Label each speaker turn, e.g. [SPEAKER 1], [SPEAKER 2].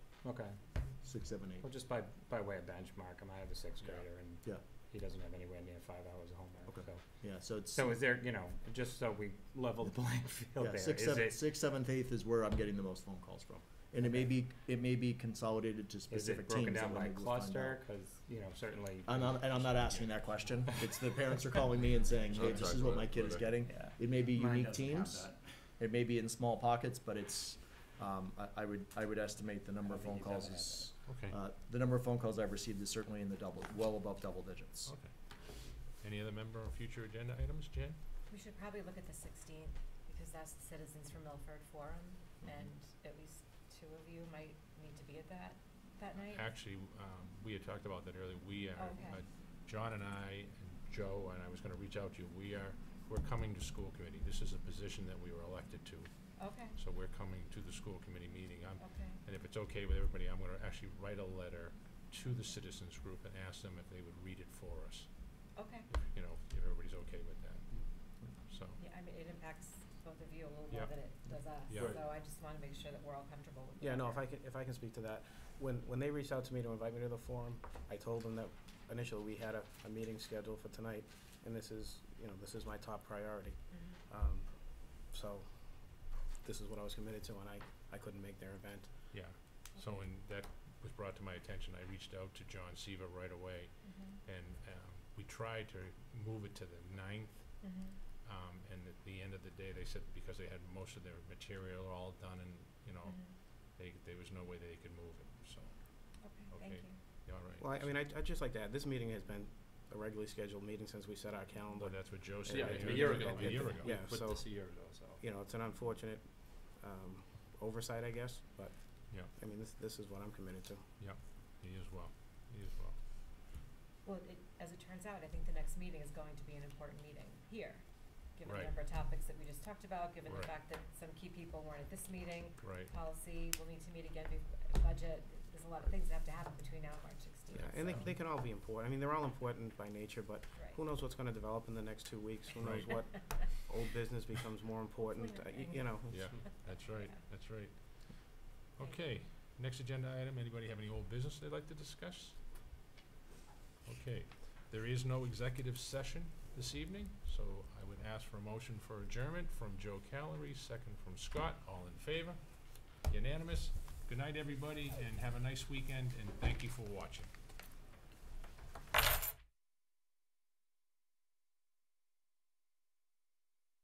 [SPEAKER 1] Okay,
[SPEAKER 2] six, seven,
[SPEAKER 1] well,
[SPEAKER 2] eight.
[SPEAKER 1] just by, by way of benchmark, I might have a sixth
[SPEAKER 3] Yeah.
[SPEAKER 1] grader and
[SPEAKER 2] Yeah.
[SPEAKER 1] he doesn't have anywhere near five hours of homework,
[SPEAKER 2] Okay.
[SPEAKER 1] so.
[SPEAKER 2] Yeah, so it's,
[SPEAKER 1] So is there, you know, just so we level the playing field
[SPEAKER 2] yeah,
[SPEAKER 1] there, is
[SPEAKER 2] six, seven,
[SPEAKER 1] it,
[SPEAKER 2] six, seventh, eighth is where I'm getting the most phone calls from. And it may be, it may be consolidated to
[SPEAKER 1] is it
[SPEAKER 2] specific teams.
[SPEAKER 1] broken
[SPEAKER 2] that
[SPEAKER 1] down
[SPEAKER 2] we'll
[SPEAKER 1] by
[SPEAKER 2] maybe find out.
[SPEAKER 1] cluster? Cause, you know, certainly.
[SPEAKER 2] I'm not, and I'm not asking that question. It's the parents are calling me and saying, hey, this is what my kid is getting.
[SPEAKER 1] Yeah.
[SPEAKER 2] It may be
[SPEAKER 3] Mine
[SPEAKER 2] unique
[SPEAKER 3] doesn't have
[SPEAKER 2] teams,
[SPEAKER 3] that.
[SPEAKER 2] it may be in small pockets, but it's, um, I, I would, I would estimate the number of
[SPEAKER 1] I don't
[SPEAKER 2] phone
[SPEAKER 1] think
[SPEAKER 2] calls
[SPEAKER 1] he's
[SPEAKER 2] is,
[SPEAKER 4] Okay,
[SPEAKER 2] uh, the number of phone calls I've received is certainly in the double, well above double
[SPEAKER 1] Oh,
[SPEAKER 2] digits.
[SPEAKER 4] okay. Any other member of future agenda items, Jen?
[SPEAKER 5] We should probably look at the sixteenth, because that's the Citizens for Milford Forum, and at least two of you might need to be at that, that night.
[SPEAKER 4] Actually, um, we had talked about that earlier, we are,
[SPEAKER 5] Okay.
[SPEAKER 4] uh, John and I, and Joe, and I was gonna reach out to you, we are, we're coming to school committee, this is a position that we were elected to,
[SPEAKER 5] Okay,
[SPEAKER 4] so we're coming to the school committee meeting, I'm,
[SPEAKER 5] okay,
[SPEAKER 4] and if it's okay with everybody, I'm gonna actually write a letter to the citizens group and ask them if they would read it for us,
[SPEAKER 5] okay.
[SPEAKER 4] if, you know, if everybody's okay with that, so.
[SPEAKER 5] Yeah, I mean, it impacts both of you a little more
[SPEAKER 4] Yeah.
[SPEAKER 5] than it does us,
[SPEAKER 4] Yeah. Right.
[SPEAKER 5] so I just wanna make sure that we're all comfortable with
[SPEAKER 6] Yeah, no, if
[SPEAKER 5] whatever.
[SPEAKER 6] I can, if I can speak to that, when, when they reached out to me to invite me to the forum, I told them that initially we had a, a meeting scheduled for tonight, and this is, you know, this is my top priority.
[SPEAKER 5] Mhm.
[SPEAKER 6] Um, so, this is what I was committed to, and I, I couldn't make their event.
[SPEAKER 4] Yeah, so when that was brought to my attention, I reached out to John Seaver right away,
[SPEAKER 5] Mhm.
[SPEAKER 4] and um, we tried to move it to the ninth,
[SPEAKER 5] Mhm.
[SPEAKER 4] um, and at the end of the day, they said because they had most of their material all done, and you know,
[SPEAKER 5] Mhm.
[SPEAKER 4] they, there was no way they could move it. So,
[SPEAKER 5] Okay,
[SPEAKER 4] Okay.
[SPEAKER 5] thank you.
[SPEAKER 4] yeah, all right.
[SPEAKER 6] Well, I- I mean, I, I'd just like to add, this meeting has been a regularly scheduled meeting since we set our calendar.
[SPEAKER 4] Well, that's what Joe said.
[SPEAKER 6] Yeah,
[SPEAKER 4] right?
[SPEAKER 6] a year ago,
[SPEAKER 4] A year ago.
[SPEAKER 6] yeah, so-
[SPEAKER 3] Put this a year ago, so.
[SPEAKER 6] You know, it's an unfortunate, um, oversight, I guess, but.
[SPEAKER 4] Yeah.
[SPEAKER 6] I mean, this, this is what I'm committed to.
[SPEAKER 4] He as well. He as well.
[SPEAKER 5] Well, it, as it turns out, I think the next meeting is going to be an important meeting here, given the
[SPEAKER 4] Right.
[SPEAKER 5] number of topics that we just talked about, given the
[SPEAKER 4] Right.
[SPEAKER 5] fact that some key people weren't at this meeting,
[SPEAKER 4] Right.
[SPEAKER 5] policy, we'll need to meet again bef- budget, there's a lot of things that have to happen between now and March sixteenth,
[SPEAKER 6] Yeah, and they, they can all be important. I mean, they're all important by nature, but
[SPEAKER 5] Right.
[SPEAKER 6] who knows what's gonna develop in the next two weeks? Who knows
[SPEAKER 4] Right.
[SPEAKER 6] what old business becomes more important, uh, y- you know?
[SPEAKER 4] Yeah. That's right.
[SPEAKER 5] Yeah.
[SPEAKER 4] That's right. Okay. Next agenda item. Anybody have any old business they'd like to discuss? Okay. There is no executive session this evening, so I would ask for a motion for adjournment from Joe Calery, second from Scott. All in favor? Unanimous. Good night, everybody, and have a nice weekend, and thank you for watching.